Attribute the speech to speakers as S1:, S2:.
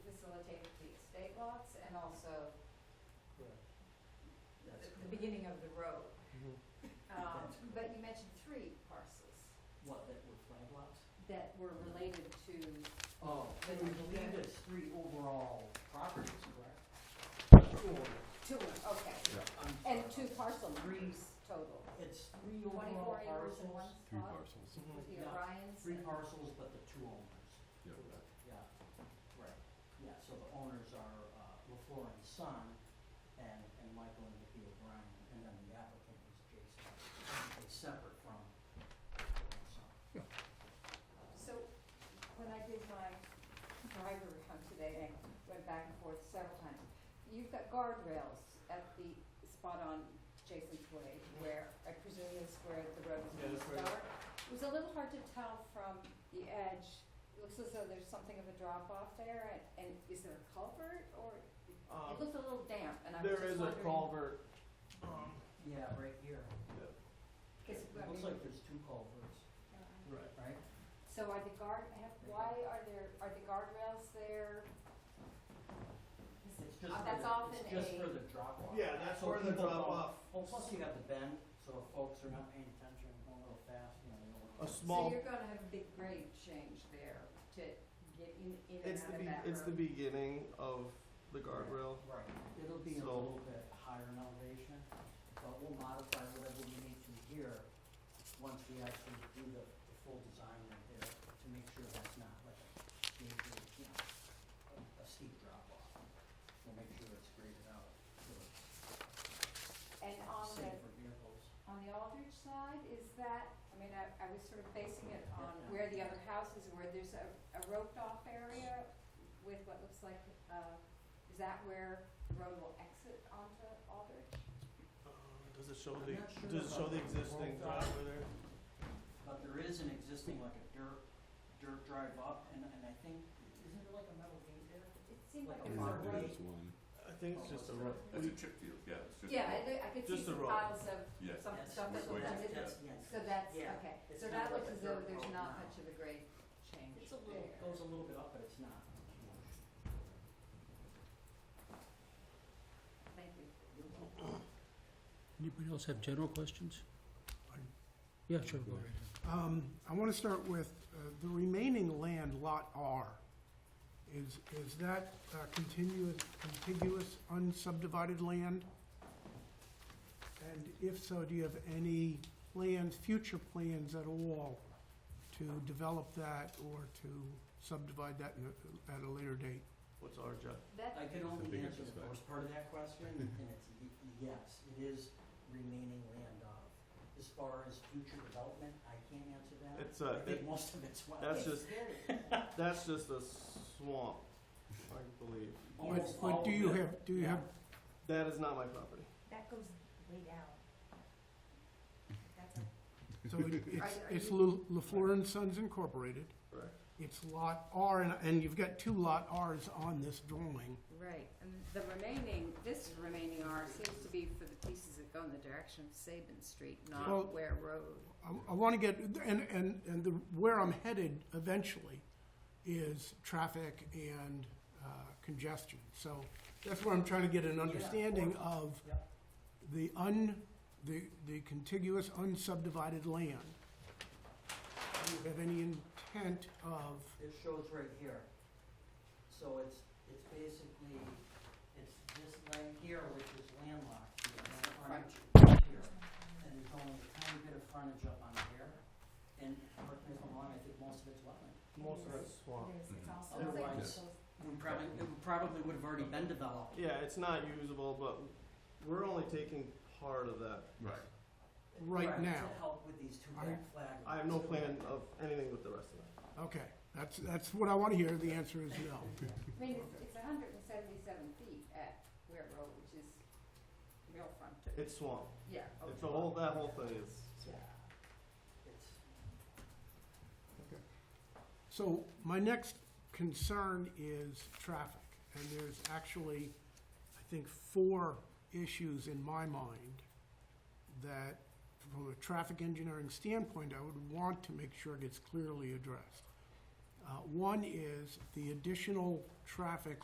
S1: the the beginning of the road.
S2: Mhm.
S1: Um, But you mentioned three parcels
S3: What, that were flag lots?
S1: that were related to,
S3: Oh, I believe it's three overall properties, correct?
S1: two, okay.
S3: I'm
S1: And two
S3: sorry.
S1: parcel
S3: Three.
S1: numbers total.
S3: It's three overall
S1: 24 acres in one
S3: parcels.
S4: Three
S1: spot
S4: parcels.
S3: Mhm,
S1: with the
S3: yeah.
S1: Orions.
S3: Three
S1: and-
S3: parcels, but the two owners.
S4: Yeah.
S3: Yeah, right, yeah, so the owners are, uh, LaFleur and Son, and, and Michael and Vicki O'Brien, and then the applicant is Jason. It's separate from LaFleur and Son.
S1: So when I did my driver hunt today, I went back and forth several times. You've got guardrails at the spot on Jason's Way where I presume is where the road is
S2: Yeah,
S1: going to
S2: that's where-
S1: start. It was a little hard to tell from the edge. It looks as though there's something of a drop off there and- and is there a culvert or?
S2: Um,
S1: It looks a little damp and I was
S2: There
S1: just
S2: is a
S1: wondering-
S2: culvert. um,
S3: Yeah, right here.
S2: yeah,
S1: Is- I
S3: Looks
S1: mean-
S3: like there's two culverts,
S2: Right.
S3: right?
S1: So are the guard, have- why are there, are the guardrails there?
S3: It's just
S1: Uh,
S3: for
S1: that's
S3: the-
S1: often
S3: It's just
S1: a-
S3: for the drop off.
S2: Yeah, that's where the drop off.
S3: Well, plus you got the bend, so if folks are not paying attention, going a little fast, you know, they don't.
S2: A
S3: want to-
S2: small-
S1: So you're gonna have a big grade change there to get in, in and
S2: It's the
S1: out of
S2: be-
S1: that
S2: it's the
S1: road.
S2: beginning of the guardrail.
S3: Right, it'll be a
S2: So-
S3: little bit higher in elevation, but we'll modify whatever we need to here once we actually do the, the full design right there to make sure that's not like a major, you know, a- a steep drop off. We'll make sure it's graded out for
S1: And on
S3: safer
S1: the,
S3: vehicles.
S1: on the Aldrich side, is that, I mean, I, I was sort of basing it on where the other houses, where there's a, a roped off area with what looks like, uh, is that where the road will exit onto Aldrich?
S2: Um, Does it show
S3: I'm
S2: the,
S3: not sure
S2: does it
S3: about
S2: show the
S3: the
S2: existing
S3: road drive.
S2: driveway there?
S3: But there is an existing, like a dirt, dirt drive up, and, and I think, isn't there like a metal gate there?
S1: It seemed like it
S3: Like a
S1: was a
S3: mark there.
S1: road.
S4: There's one.
S2: I think it's just a road.
S5: That's a chip field, yeah, it's just.
S1: Yeah, I, I could see
S2: Just a
S1: some
S2: road.
S1: piles of
S5: Yeah,
S1: some
S3: Yes.
S1: stuff that
S5: Which way
S1: looked
S5: is-
S1: as if
S5: yeah.
S3: yes.
S1: So that's,
S3: Yeah.
S1: okay,
S3: It's
S1: so
S3: kind
S1: that
S3: of
S1: looks
S3: like
S1: as
S3: a
S1: though
S3: dirt
S1: there's
S3: road
S1: not
S3: now.
S1: much of a grade change there.
S3: It's a little, goes a little bit up, but it's not huge.
S1: Thank you.
S6: Anybody else have general questions?
S7: Pardon?
S6: Yeah, sure, go
S4: Yeah.
S6: ahead.
S7: Um, I want to start with, uh, the remaining land, Lot R, is, is that uh, continuous, contiguous unsubdivided land? And if so, do you have any plans, future plans at all to develop that or to subdivide that in a- at a later date?
S2: What's our job?
S1: That,
S3: I can
S4: I
S3: only
S4: think
S3: answer
S4: it's
S3: the
S4: back.
S3: first part of that question, and it's y- yes, it is remaining land of. As far as future development, I can't answer that.
S2: It's a-
S3: I think
S2: it-
S3: most of it's wet.
S2: That's just, that's just a swamp, I believe.
S3: Almost
S7: But- But
S3: Oh, all
S7: do you
S3: of it.
S7: have, do you
S3: Yeah.
S7: have,
S2: That is not my property.
S1: that goes way down. That's a,
S7: so it- it's,
S1: are
S7: it's
S1: you-
S7: Lu- LaFleur and Sons Incorporated.
S2: Correct.
S7: It's Lot R, and, and you've got two Lot Rs on this drawing.
S1: right, and the remaining, this remaining R seems to be for the pieces that go in the direction of Saban Street,
S7: Well-
S1: not Ware Road.
S7: I, I want to get, and, and, and the, where I'm headed eventually is traffic and uh, congestion. So that's where I'm trying to get an understanding of
S3: Yep.
S7: the un, the, the contiguous unsubdivided land. Do you have any intent of,
S3: It shows right here. So it's, it's basically, it's this land here, which is landlocked, you know, the frontage here. And there's only a tiny bit of frontage up on here, and correct me if I'm wrong, I think most of it's wetland.
S2: Most of it's swamp.
S4: it's
S3: also- Otherwise- We probably, it probably would have already been developed.
S2: Yeah, it's not usable, but we're only taking part of that.
S4: Right.
S7: Right now.
S3: To help with these two
S7: I-
S3: red flags.
S2: I have no plan of anything with the rest of that.
S7: okay, that's, that's what I want to hear. The answer is no.
S1: I mean, it's, it's hundred and seventy-seven feet at Ware Road, which is real frontage.
S2: It's swamp.
S1: Yeah, okay.
S2: It's a whole, that whole thing is
S3: Yeah. It's,
S7: So my next concern is traffic, and there's actually, I think, four issues in my mind that, from a traffic engineering standpoint, I would want to make sure gets clearly addressed. Uh, One is the additional traffic